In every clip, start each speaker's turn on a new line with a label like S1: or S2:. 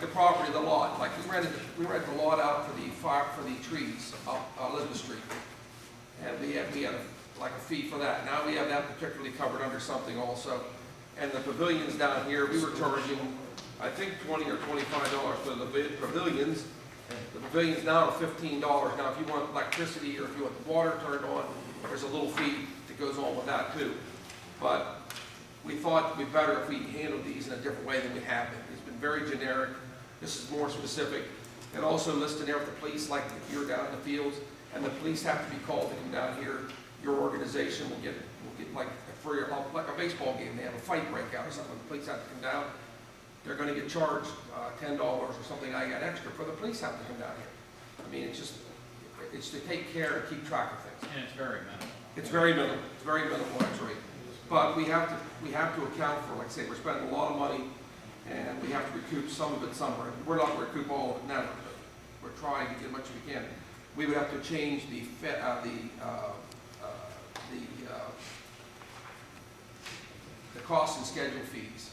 S1: the property, the lot, like we rented, we rented the lot out for the fire, for the trees up uh, Elizabeth Street. And we had, we had like a fee for that. Now we have that particularly covered under something also. And the pavilions down here, we were charging, I think, twenty or twenty-five dollars for the pavi- pavilions. The pavilion's now fifteen dollars. Now, if you want electricity or if you want the water turned on, there's a little fee that goes on with that too. But we thought it'd be better if we handled these in a different way than we have been. It's been very generic. This is more specific. And also listed there with the police, like if you're down in the fields and the police have to be called to come down here, your organization will get, will get like, for your, like a baseball game, they have a fight breakout or something, the police have to come down. They're gonna get charged, uh, ten dollars or something like that extra for the police have to come down here. I mean, it's just, it's to take care and keep track of things.
S2: And it's very minimal.
S1: It's very minimal, it's very minimal actually. But we have to, we have to account for, like I say, we're spending a lot of money and we have to recoup some of it somewhere. We're not gonna recoup all of it now, but we're trying to get as much as we can. We would have to change the fe, uh, the, uh, uh, the, uh, the cost and schedule fees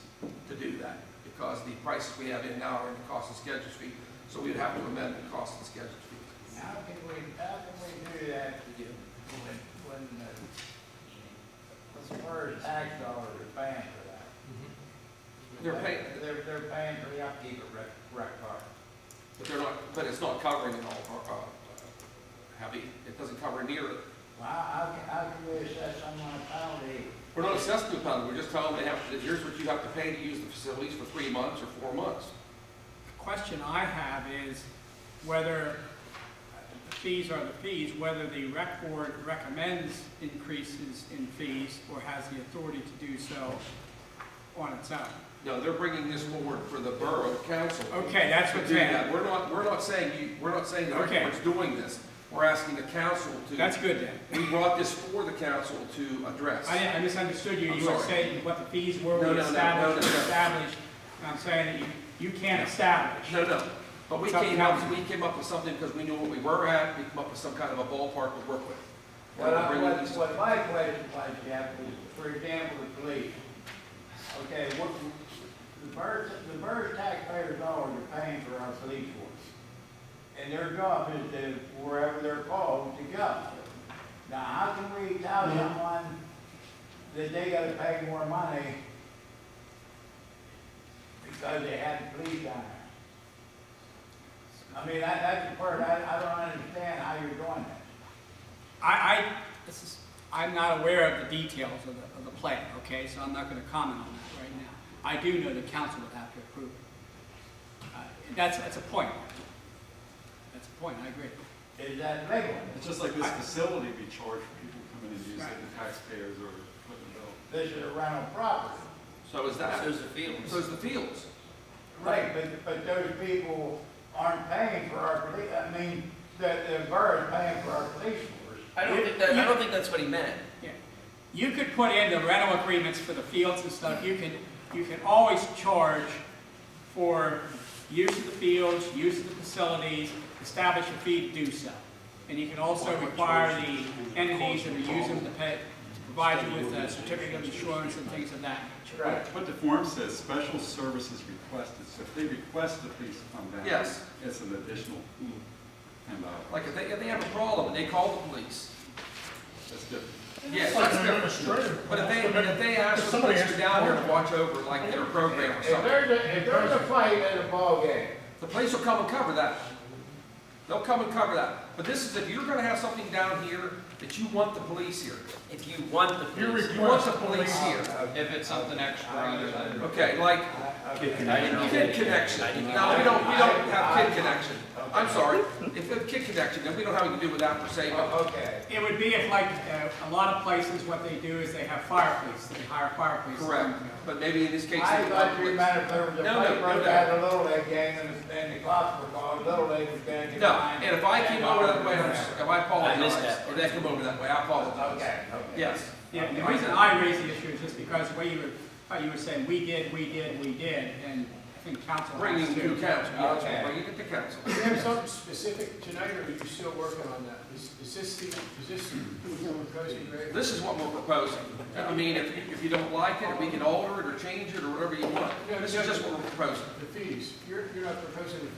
S1: to do that because the prices we have in now are in the cost and schedule fee. So we'd have to amend the cost and schedule fee.
S3: How can we, how can we do that when, when, uh, what's the word, tax dollars are paying for that?
S1: They're paying,
S3: They're, they're paying for the upkeep of rec, rec park.
S1: But they're not, but it's not covering it all, or, uh, heavy, it doesn't cover near it.
S3: Well, how, how can- how can we assess someone a penalty?
S1: We're not assessing the penalty, we're just telling them they have, to- here's what you have to pay to use the facilities for three months or four months.
S4: The question I have is whether uh, the fees are the fees, whether the rec board recommends increases in fees or has the authority to do so on its own.
S1: No, they're bringing this forward for the borough council.
S4: Okay, that's
S1: To
S4: what's
S1: do that,
S4: in.
S1: we're not, we're not saying you, we're not saying the
S4: Okay.
S1: board's doing this, we're asking the council to.
S4: That's good then.
S1: We brought this for the council to address.
S4: I I misunderstood you.
S1: I'm
S4: You were
S1: sorry.
S4: saying what the fees
S1: No,
S4: were, we
S1: no, no, no, no,
S4: established,
S1: no.
S4: established. And I'm saying that you, you can't establish.
S1: No, no, but we
S4: It's up to
S1: came up,
S4: council.
S1: we came up with something because we knew what we were at, we came up with some kind of a ballpark to work with. And
S3: Well,
S1: we're
S3: I-
S1: bringing
S3: what,
S1: these-
S3: what my question was, Jeff, is, for example, the police. Okay, what, the birds, the birds taxpayers dollars are paying for our police force. And their job is to, wherever they're called, to go. Now, how can we tell someone that they gotta pay more money because they had the police down there? I mean, that, that's the part, I, I don't understand how you're doing that.
S4: I, I, this is, I'm not aware of the details of the, of the plan, okay, so I'm not gonna comment on that right now. I do know the council would have to approve it. Uh, That's, that's a point. That's a point, I agree.
S3: Is that legal?
S5: It's just like this facility we charge for people to come in and use it,
S4: Right.
S5: the taxpayers are putting the bill.
S3: This is a rental property.
S1: So is that.
S2: So's the fields.
S1: So it's the fields.
S3: Right, but, but those people aren't paying for our police, I mean, the, the borough's paying for our police force.
S6: I don't think that, I don't think that's what he meant.
S4: Yeah. You could put in the rental agreements for the fields and stuff, you can, you can always charge for use of the fields, use of the facilities, establish a fee to do so. And you can also require the entities that are using the pay, to provide you with a certificate of insurance and things of that nature.
S3: Right.
S5: What the form says, special services requested, so if they request the police to come down.
S1: Yes.
S5: It's an additional ten dollars,
S1: Like if they, if they have a problem and they call the police,
S5: that's different.
S1: yes, that's different. But if they, but if they ask the police to down here to watch over like their program or something,
S3: a, if there's a fight at a ballgame.
S1: the police will come and cover that. They'll come and cover that. But this is if you're gonna have something down here that you want the police here.
S6: If you want the police,
S1: You want the police here.
S2: If it's something extra other than.
S1: Okay, like
S2: I didn't get
S1: kid
S2: it.
S1: connection.
S2: I didn't
S1: No, we
S2: get it.
S1: don't, we don't have kid connection. I'm sorry. If we have kid connection, then we don't have anything to do with that per se, but
S3: oh, Okay,
S4: It would be if like, uh, a lot of places, what they do is they have fire police, they hire fire police. to come
S1: correct.
S4: and go.
S1: But maybe in this case.
S3: I
S1: they-
S3: thought you meant if there was a
S1: No, no,
S3: fight
S1: no,
S3: broke
S1: no.
S3: out at a Little League game and, the- and the cops were called, Little League was gonna get.
S1: No,
S3: fined
S1: and if I came over that way, I'm s-
S3: $10.
S1: if I
S6: I missed
S1: apologize,
S6: that.
S1: or they come over that way, I apologize.
S3: Okay, okay.
S1: Yes.
S4: Yeah, the reason I raised the issue is just because the way you were, how you were saying, we did, we did, we did, and think council
S1: bringing
S4: has
S1: it to
S4: to.
S1: council, yeah, that's
S4: Okay.
S1: right, bringing it to council.
S7: Do you have something specific tonight, or are you still working on that? Is, is this the, is this what you're proposing, Greg?
S1: This is what we're proposing. I mean, if, if you don't like it, we can alter it or change it or whatever you want. This is just what we're proposing.
S7: The fees, you're, you're not proposing the fees